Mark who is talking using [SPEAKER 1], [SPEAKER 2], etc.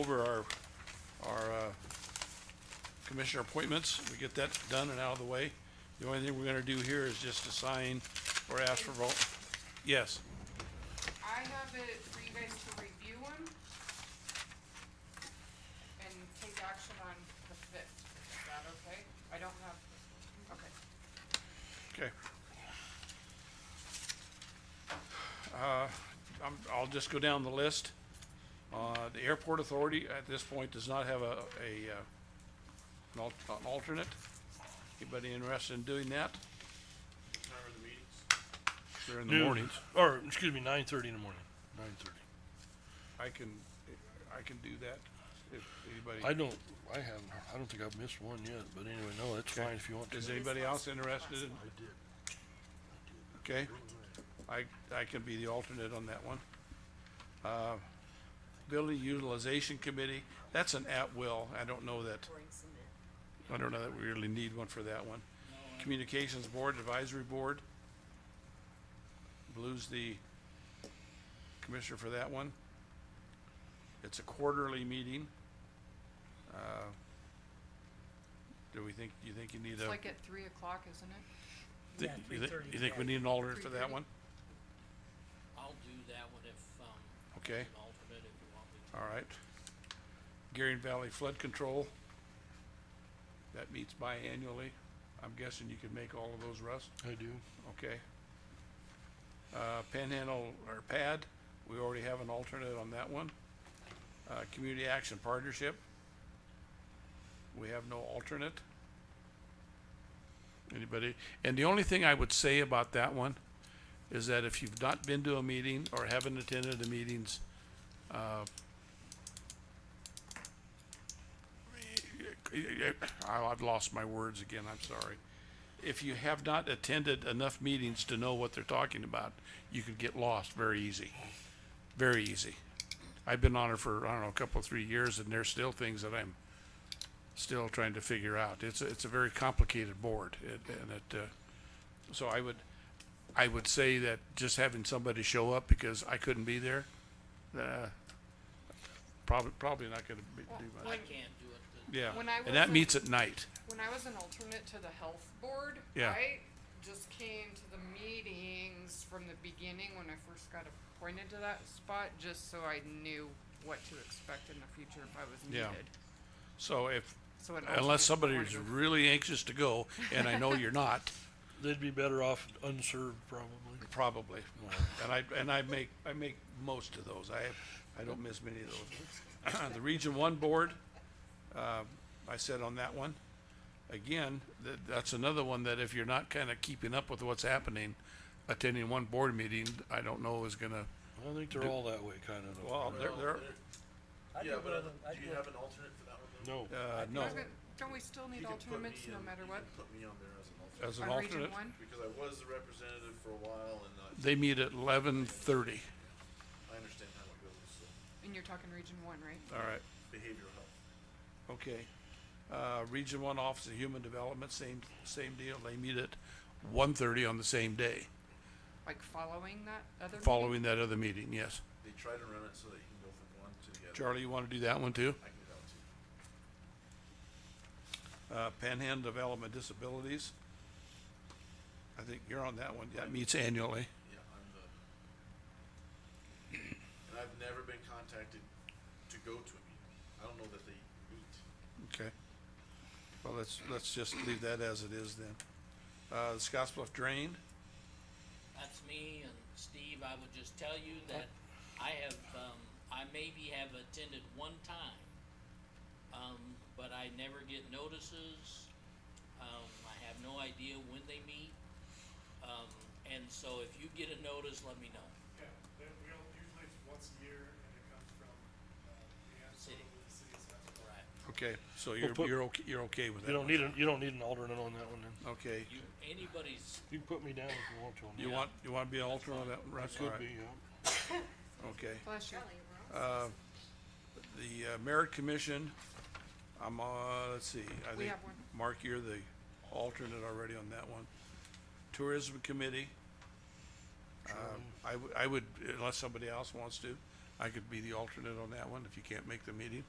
[SPEAKER 1] over our, our, uh, commissioner appointments, we get that done and out of the way. The only thing we're gonna do here is just assign or ask for vote. Yes,
[SPEAKER 2] I have it for you guys to review them and take action on the fifth. Is that okay? I don't have, okay.
[SPEAKER 1] okay. Uh, I'm, I'll just go down the list. Uh, the airport authority at this point does not have a, a, uh, an al- an alternate. Anybody interested in doing that? They're in the
[SPEAKER 3] Noon,
[SPEAKER 1] mornings.
[SPEAKER 3] Or, excuse me, nine thirty in the morning, nine thirty.
[SPEAKER 1] I can, I can do that if
[SPEAKER 3] I
[SPEAKER 1] anybody,
[SPEAKER 3] don't, I haven't, heard- I don't think I've missed one yet, but anyway, no, that's
[SPEAKER 1] Okay.
[SPEAKER 3] fine if you want to.
[SPEAKER 1] is anybody else interested in? Okay, I, I can be the alternate on that one. Uh, Building Utilization Committee, that's an at-will, I don't know that, I don't know that we really need one for that one. Communications Board Advisory Board. Blue's the commissioner for that one. It's a quarterly meeting. Uh, Do we think, you think you need a?
[SPEAKER 2] It's like at three o'clock, isn't it?
[SPEAKER 1] thi-
[SPEAKER 4] Yeah,
[SPEAKER 1] you thi-
[SPEAKER 4] 3:30,
[SPEAKER 1] You think we
[SPEAKER 4] yeah.
[SPEAKER 1] need an alternate for that
[SPEAKER 2] 3:30.
[SPEAKER 1] one?
[SPEAKER 5] I'll do that one if, um,
[SPEAKER 1] Okay.
[SPEAKER 5] as an alternate if you want me to.
[SPEAKER 1] All right. Gearing Valley Flood Control. That meets biannually. I'm guessing you could make all of those, Russ?
[SPEAKER 3] I do.
[SPEAKER 1] Okay. Uh, Panhandle or PAD, we already have an alternate on that one. Uh, Community Action Partnership. We have no alternate. Anybody? And the only thing I would say about that one is that if you've not been to a meeting or haven't attended the meetings, uh, I- Oh, I've lost my words again, I'm sorry. If you have not attended enough meetings to know what they're talking about, you could get lost very easy, very easy. I've been on it for, I don't know, a couple, three years, and there's still things that I'm still trying to figure out. It's, a- it's a very complicated board, it- and it, uh, so I would, I would say that just having somebody show up because I couldn't be there, uh, probably, probably not gonna be, do
[SPEAKER 5] I
[SPEAKER 1] much.
[SPEAKER 5] can't do it, but
[SPEAKER 1] Yeah,
[SPEAKER 2] When I
[SPEAKER 1] and that
[SPEAKER 2] was a-
[SPEAKER 1] meets at night.
[SPEAKER 2] When I was an alternate to the health board,
[SPEAKER 1] Yeah.
[SPEAKER 2] I just came to the meetings from the beginning when I first got appointed to that spot, just so I knew what to expect in the future if I was
[SPEAKER 1] Yeah.
[SPEAKER 2] needed.
[SPEAKER 1] So if,
[SPEAKER 2] So an alternate
[SPEAKER 1] unless somebody is
[SPEAKER 2] supportive.
[SPEAKER 1] really anxious to go, and I know you're not,
[SPEAKER 3] They'd be better off unserved probably.
[SPEAKER 1] probably. And I, and I make, I make most of those. I, I don't miss many of those. The Region One Board, uh, I said on that one, again, that, that's another one that if you're not kind of keeping up with what's happening, attending one board meeting, I don't know is gonna,
[SPEAKER 3] I think they're all that way kind of. though,
[SPEAKER 1] well,
[SPEAKER 3] right?
[SPEAKER 1] Um, they're, they're,
[SPEAKER 4] I
[SPEAKER 6] Yeah,
[SPEAKER 4] do, but I
[SPEAKER 6] but
[SPEAKER 4] don't, I
[SPEAKER 6] do
[SPEAKER 4] do.
[SPEAKER 6] you have an alternate for that one? though?
[SPEAKER 3] No,
[SPEAKER 1] uh, no,
[SPEAKER 2] Wasn't- Don't we still need
[SPEAKER 6] You can put
[SPEAKER 2] alternates
[SPEAKER 6] me
[SPEAKER 2] no
[SPEAKER 6] in-
[SPEAKER 2] matter
[SPEAKER 6] you
[SPEAKER 2] what?
[SPEAKER 6] can Put me on there as an alternate,
[SPEAKER 1] as an
[SPEAKER 2] On region
[SPEAKER 1] alternate.
[SPEAKER 2] one?
[SPEAKER 6] because I was the representative for a while and I,
[SPEAKER 1] They meet at eleven thirty.
[SPEAKER 6] I understand how it goes, so,
[SPEAKER 2] And you're talking region one, right?
[SPEAKER 1] All right.
[SPEAKER 6] behavioral health.
[SPEAKER 1] Okay. Uh, Region One Office of Human Development, same, same deal. They meet at one thirty on the same day,
[SPEAKER 2] Like following that other meeting?
[SPEAKER 1] following that other meeting, yes.
[SPEAKER 6] They try to run it so that you can go from one to the other.
[SPEAKER 1] Charlie, you wanna do that one too?
[SPEAKER 6] I can do that too.
[SPEAKER 1] Uh, Panhandle Development Disabilities. I think you're on that one. That meets annually.
[SPEAKER 6] Yeah, I'm the. And I've never been contacted to go to a meeting. I don't know that they meet.
[SPEAKER 1] Okay. Well, let's, let's just leave that as it is then. Uh, Scottsbluff Drain,
[SPEAKER 5] that's me and Steve, I would just tell you that I have, um, I maybe have attended one time. Um, but I never get notices, um, I have no idea when they meet. Um, and so if you get a notice, let me know.
[SPEAKER 7] Yeah, they, we all, usually it's once a year and it comes from, uh, the
[SPEAKER 5] City.
[SPEAKER 7] absolute, the city assessment.
[SPEAKER 5] Right.
[SPEAKER 1] okay, so you're,
[SPEAKER 3] put-
[SPEAKER 1] you're okay, you're okay with that?
[SPEAKER 3] you don't
[SPEAKER 1] one.
[SPEAKER 3] need an, you don't need an alternate on that one then.
[SPEAKER 1] Okay.
[SPEAKER 5] You, anybody's,
[SPEAKER 3] You can put me down if you want to on that.
[SPEAKER 1] You want, you wanna be an alternate on that, one, Russ? All
[SPEAKER 3] Could
[SPEAKER 1] right.
[SPEAKER 3] be, yeah.
[SPEAKER 1] Okay.
[SPEAKER 2] Bless you.
[SPEAKER 1] Uh, The uh, Merit Commission, I'm, uh, let's see, I
[SPEAKER 2] We
[SPEAKER 1] think,
[SPEAKER 2] have one.
[SPEAKER 1] Mark, you're the alternate already on that one. Um, Tourism Committee. uh, I, w- I would, unless somebody else wants to, I could be the alternate on that one if you can't make the meeting.